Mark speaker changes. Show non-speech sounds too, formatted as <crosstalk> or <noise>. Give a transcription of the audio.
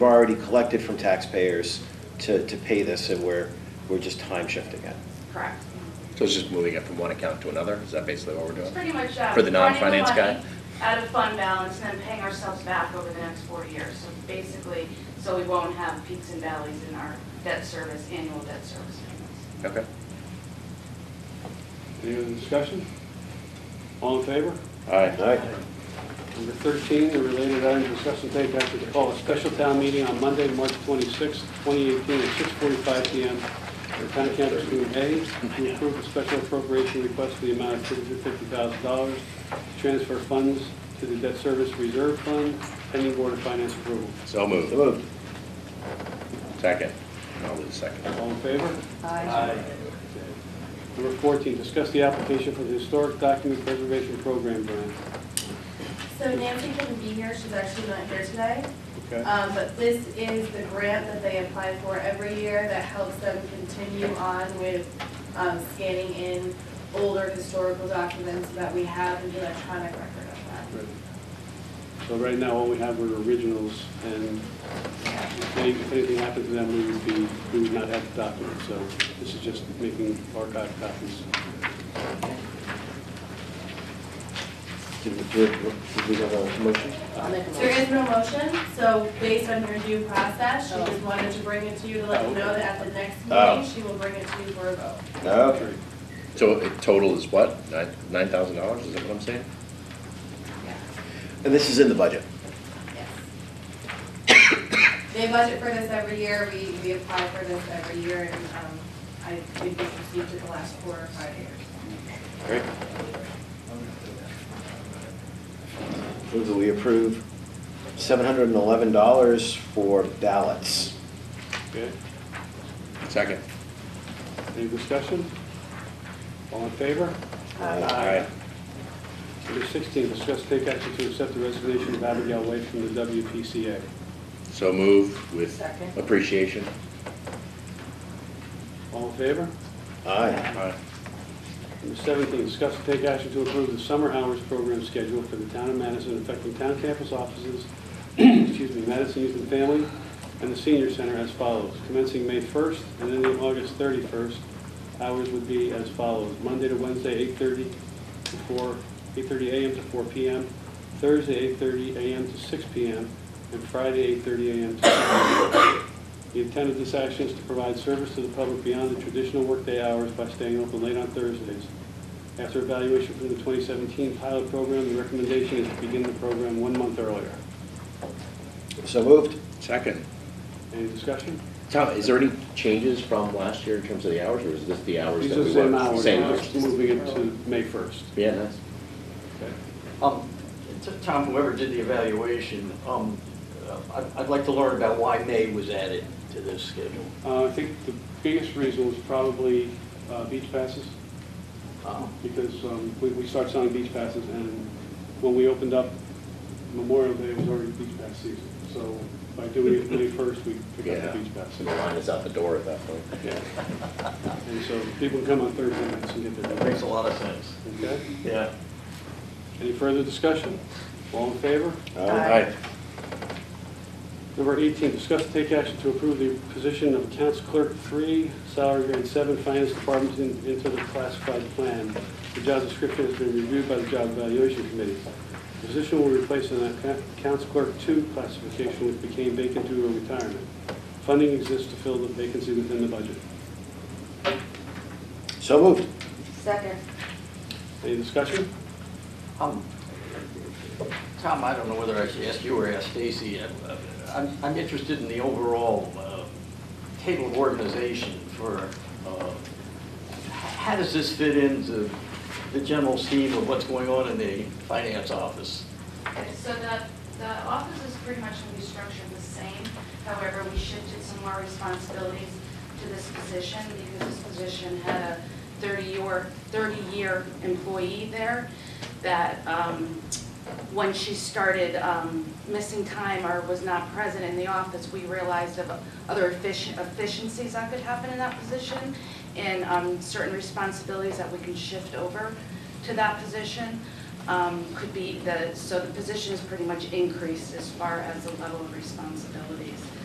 Speaker 1: We've already collected from taxpayers to, to pay this, and we're, we're just time shifting it.
Speaker 2: Correct.
Speaker 3: So it's just moving it from one account to another? Is that basically what we're
Speaker 2: It's
Speaker 3: doing?
Speaker 2: pretty much uh, that.
Speaker 3: For the non-finance guy?
Speaker 2: Out of fund balance and then paying ourselves back over the next four years. So basically, so we won't have peaks and valleys in our debt service, annual debt service payments.
Speaker 3: Okay.
Speaker 4: Any other discussion? All in favor?
Speaker 3: Aye.
Speaker 4: Number 13, the related item discussed and take action to call a special town meeting on Monday, March 26, 2018, at 6:45 PM for Town Council Meeting A to approve a special appropriation request for the amount of $250,000 to transfer funds to the debt service reserve fund pending Board of Finance approval.
Speaker 3: So moved. Moved. Second. I'll do the second.
Speaker 4: All in favor? Number 14, discuss the application for the Historic Document Preservation Program grant.
Speaker 5: So Nancy couldn't be here, she's actually not here today.
Speaker 4: Okay?
Speaker 5: Um, But this is the grant that they apply for every year that helps them continue on with um, scanning in older historical documents so that we have an electronic record of
Speaker 4: Right. So right now, all we have are originals, and if any- if anything happened to them, we would be, we would not have the documents, so this is just making archive copies.
Speaker 1: Did we, did did we have a motion?
Speaker 5: that. There is no motion, so based on her due process, she just wanted to bring it to you to let you know that at the next
Speaker 1: Oh.
Speaker 5: meeting, she will bring it to you for a vote.
Speaker 1: Okay.
Speaker 3: So it total is what? Nine Nine thousand dollars, is that what I'm saying?
Speaker 1: And this is in the budget.
Speaker 5: Yes. They budget for this every year, we, we apply for this every year, and, um, I, we've received it the last four or five years.
Speaker 1: Great. Move that we approve $711 for ballots.
Speaker 4: Okay,
Speaker 3: Second.
Speaker 4: any discussion? All in favor?
Speaker 3: Aye.
Speaker 4: Number 16, discuss take action to accept the resignation of Abigail White from the WPCA.
Speaker 3: So move with
Speaker 5: Second.
Speaker 3: appreciation.
Speaker 4: All in favor?
Speaker 1: Aye.
Speaker 3: Aye.
Speaker 4: Number 17, discuss and take action to approve the summer hours program schedule for the town of Madison affecting town campus offices, <clears throat> excuse me, Madison Youth and Family, and the senior center as follows. Commencing May 1st and ending August 31st, hours would be as follows. Monday to Wednesday, 8:30 to 4, 8:30 a.m. to 4 p.m., Thursday, 8:30 a.m. to 6 p.m., and Friday, 8:30 a.m. to 6 p.m. The intent of this action is to provide service to the public beyond the traditional workday hours by staying open late on Thursdays. After evaluation from the 2017 pilot program, the recommendation is to begin the program one month earlier.
Speaker 1: So moved?
Speaker 3: Second.
Speaker 4: Any discussion?
Speaker 3: Tom, is there any changes from last year in terms of the hours, or is this the hours
Speaker 4: These
Speaker 3: that
Speaker 4: are
Speaker 3: we work?
Speaker 4: the same hours,
Speaker 3: Same
Speaker 4: we're just
Speaker 3: hours.
Speaker 4: moving it to May 1st.
Speaker 3: Yeah, that's,
Speaker 6: Um, to Tom, whoever did the evaluation, um, uh, I'd, I'd like to learn about why May was added to this schedule.
Speaker 4: Uh, I think the biggest reason was probably uh, beach passes,
Speaker 6: Um,
Speaker 4: because um, we we started selling beach passes, and when we opened up Memorial Day, it was already beach pass season. So by doing it May 1st, we pick up
Speaker 3: yeah.
Speaker 4: the beach passes.
Speaker 3: So the line is out the door at that point.
Speaker 4: Yeah. And so people can come on Thursday nights and get
Speaker 6: That
Speaker 4: their
Speaker 6: makes
Speaker 4: drinks.
Speaker 6: a lot of sense.
Speaker 4: Okay?
Speaker 6: Yeah.
Speaker 4: Any further discussion? All in favor?
Speaker 3: Aye.
Speaker 4: Number 18, discuss and take action to approve the position of Accounts Clerk 3, salary grade 7, Finance Department in- into the classified plan. The job description has been reviewed by the Job Evaluation Committee. The position will replace an account- Accounts Clerk 2 classification which became vacant due to retirement. Funding exists to fill the vacancy within the budget.
Speaker 1: So moved?
Speaker 5: Second.
Speaker 4: Any discussion?
Speaker 6: Um, Tom, I don't know whether I should ask you or ask Stacy. Uh, I'm, I'm interested in the overall uh, table of organization for, uh, h- how does this fit into the general scheme of what's going on in the finance office?
Speaker 2: Okay, So the, the office is pretty much going to be structured the same. However, we shifted some more responsibilities to this position because this position had a 30-year, 30-year employee there that um, when she started um, missing time or was not present in the office, we realized of other effici- efficiencies that could happen in that position and um, certain responsibilities that we can shift over to that position. um, could be the, so the position is pretty much increased as far as the level of responsibilities.